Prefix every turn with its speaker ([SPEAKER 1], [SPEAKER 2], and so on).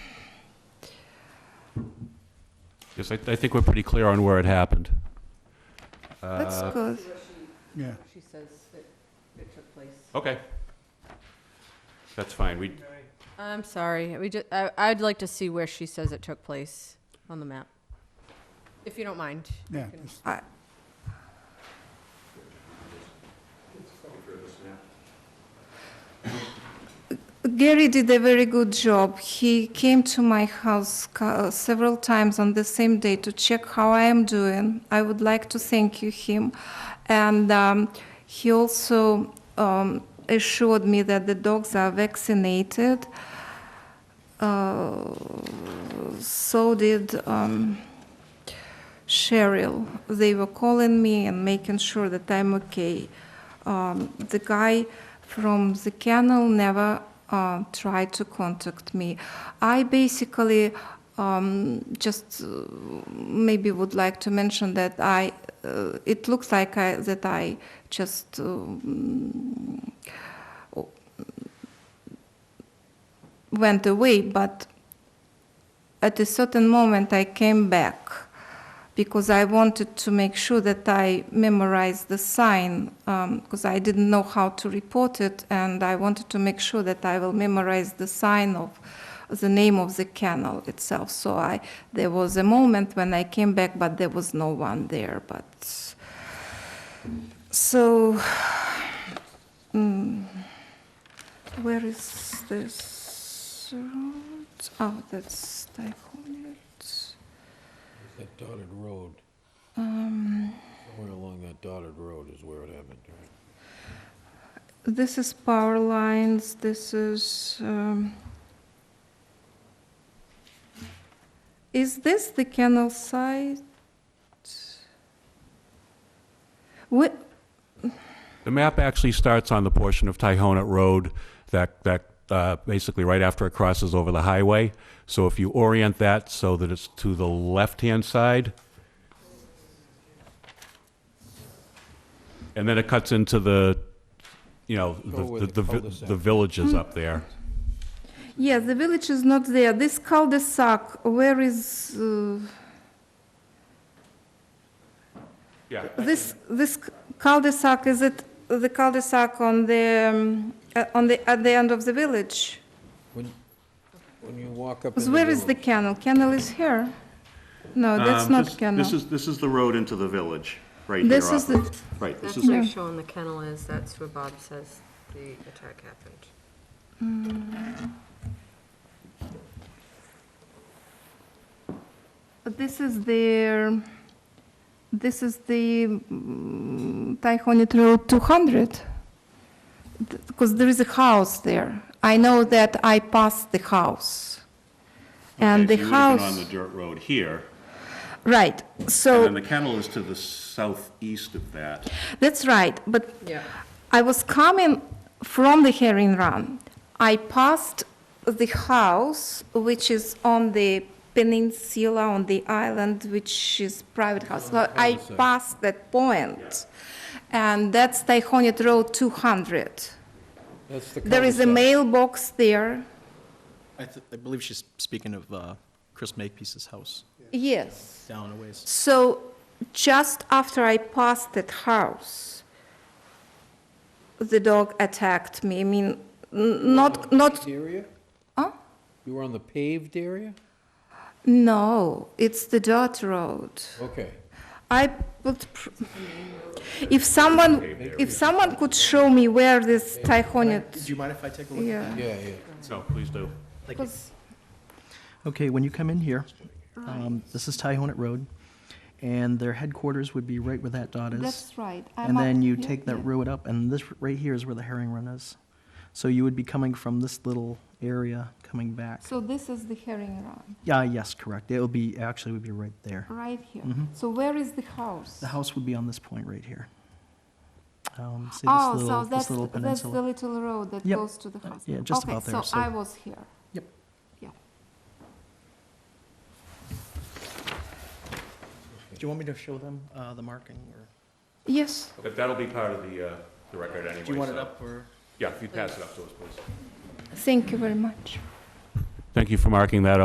[SPEAKER 1] Yes, I, I think we're pretty clear on where it happened.
[SPEAKER 2] That's
[SPEAKER 1] Uh,
[SPEAKER 2] good.
[SPEAKER 3] Yeah,
[SPEAKER 4] She says that it took place.
[SPEAKER 1] Okay. That's fine. We,
[SPEAKER 4] I'm sorry, we just, I, I'd like to see where she says it took place on the map. If you don't mind.
[SPEAKER 3] yeah.
[SPEAKER 4] can-
[SPEAKER 3] it's-
[SPEAKER 2] I- Gary did a very good job. He came to my house ca- several times on the same day to check how I am doing. I would like to thank you him, and um, he also um, assured me that the dogs are vaccinated. Uh, so did um, Cheryl. They were calling me and making sure that I'm okay. Um, the guy from the kennel never uh, tried to contact me. I basically um, just uh, maybe would like to mention that I. Uh, it looks like I, that I just. Um, went away, but at a certain moment I came back because I wanted to make sure that I memorized the sign because I didn't know how to report it and I wanted to make sure that I will memorize the sign of the name of the kennel itself. So I there was a moment when I came back but there was no one there but so mm, where is this road? Oh, that's Steichholz.
[SPEAKER 5] That dotted road,
[SPEAKER 2] Um,
[SPEAKER 5] somewhere along that dotted road is where it happened, right?
[SPEAKER 2] this is power lines. This is. Um, is this the canal site? What?
[SPEAKER 1] the map actually starts on the portion of Tyhonet Road that, that, uh, basically right after it crosses over the highway. So if you orient that so that it's to the left-hand side, and then it cuts into the, you know,
[SPEAKER 5] Go
[SPEAKER 1] the,
[SPEAKER 5] with
[SPEAKER 1] the,
[SPEAKER 5] the
[SPEAKER 1] the vi-
[SPEAKER 5] cul-de-sac.
[SPEAKER 1] the villages up there.
[SPEAKER 2] Yeah, the village is not there. This cul-de-sac. Where is uh,
[SPEAKER 1] Yeah.
[SPEAKER 2] this? This cul-de-sac is it the cul-de-sac on the um, uh, on the at the end of the village?
[SPEAKER 5] When, when you walk up in
[SPEAKER 2] Because
[SPEAKER 5] the
[SPEAKER 2] where is the
[SPEAKER 5] village,
[SPEAKER 2] kennel? Kennel is here. No, that's
[SPEAKER 6] Um,
[SPEAKER 2] not
[SPEAKER 6] this-
[SPEAKER 2] kennel.
[SPEAKER 6] This is, this is the road into the village, right here.
[SPEAKER 2] This is
[SPEAKER 6] off
[SPEAKER 2] the-
[SPEAKER 6] of- Right, this
[SPEAKER 4] That's
[SPEAKER 6] is,
[SPEAKER 4] where showing the kennel is, that's where Bob says the attack happened.
[SPEAKER 2] This is the, this is the mm, Taihonet Road 200. Because there is a house there. I know that I passed the house. And
[SPEAKER 6] okay,
[SPEAKER 2] the
[SPEAKER 6] so you would have been on
[SPEAKER 2] house,
[SPEAKER 6] the dirt road here,
[SPEAKER 2] right,
[SPEAKER 6] and then
[SPEAKER 2] so,
[SPEAKER 6] the kennel is to the southeast of that.
[SPEAKER 2] that's right, but
[SPEAKER 4] Yeah.
[SPEAKER 2] I was coming from the herring run. I passed the house, which is on the peninsula, on the island, which is private house. So I passed that point, and that's Taihonet Road 200.
[SPEAKER 5] that's the
[SPEAKER 2] There is a
[SPEAKER 5] cul-de-sac.
[SPEAKER 2] mailbox there.
[SPEAKER 7] I, th- I believe she's speaking of uh, Chris Makepeace's house
[SPEAKER 2] Yes.
[SPEAKER 7] down a ways.
[SPEAKER 2] So just after I passed that house, the dog attacked me. I mean, n- not, not,
[SPEAKER 5] Area?
[SPEAKER 2] Huh?
[SPEAKER 5] You were on the paved area?
[SPEAKER 2] no, it's the dirt road.
[SPEAKER 5] Okay.
[SPEAKER 2] I would, pr- if someone, if someone could show me where this
[SPEAKER 7] Do
[SPEAKER 2] Tyhonet,
[SPEAKER 7] you mind if I take a look?
[SPEAKER 2] yeah.
[SPEAKER 5] Yeah, yeah.
[SPEAKER 1] No, please do.
[SPEAKER 2] Because
[SPEAKER 7] Okay, when you come in here, um, this is Tyhonet Road, and their headquarters would be right where that dot is.
[SPEAKER 2] That's right. I'm
[SPEAKER 7] And then
[SPEAKER 2] up
[SPEAKER 7] you
[SPEAKER 2] here,
[SPEAKER 7] take that
[SPEAKER 2] yeah.
[SPEAKER 7] road up, and this right here is where the herring run is. So you would be coming from this little area coming back.
[SPEAKER 2] So this is the herring run,
[SPEAKER 7] Yeah, yes, correct. It will be, actually would be right there.
[SPEAKER 2] right here. So where is the house?
[SPEAKER 7] Mm-hmm. The house would be on this point right here. Um, See
[SPEAKER 2] Oh,
[SPEAKER 7] this
[SPEAKER 2] so
[SPEAKER 7] little,
[SPEAKER 2] that's,
[SPEAKER 7] this little
[SPEAKER 2] that's the
[SPEAKER 7] peninsula?
[SPEAKER 2] little road that
[SPEAKER 7] Yep.
[SPEAKER 2] goes to the
[SPEAKER 7] Uh,
[SPEAKER 2] house.
[SPEAKER 7] yeah, just about there,
[SPEAKER 2] Okay, so
[SPEAKER 7] so-
[SPEAKER 2] I was here.
[SPEAKER 7] Yep.
[SPEAKER 2] Yeah.
[SPEAKER 7] Do you want me to show them uh, the marking, or
[SPEAKER 2] Yes,
[SPEAKER 1] But that'll be part of the, uh, the record anyway.
[SPEAKER 7] do you want it
[SPEAKER 1] so-
[SPEAKER 7] up, or?
[SPEAKER 1] Yeah, if you pass it up to us, please.
[SPEAKER 2] thank you very much.
[SPEAKER 1] Thank you for marking that up.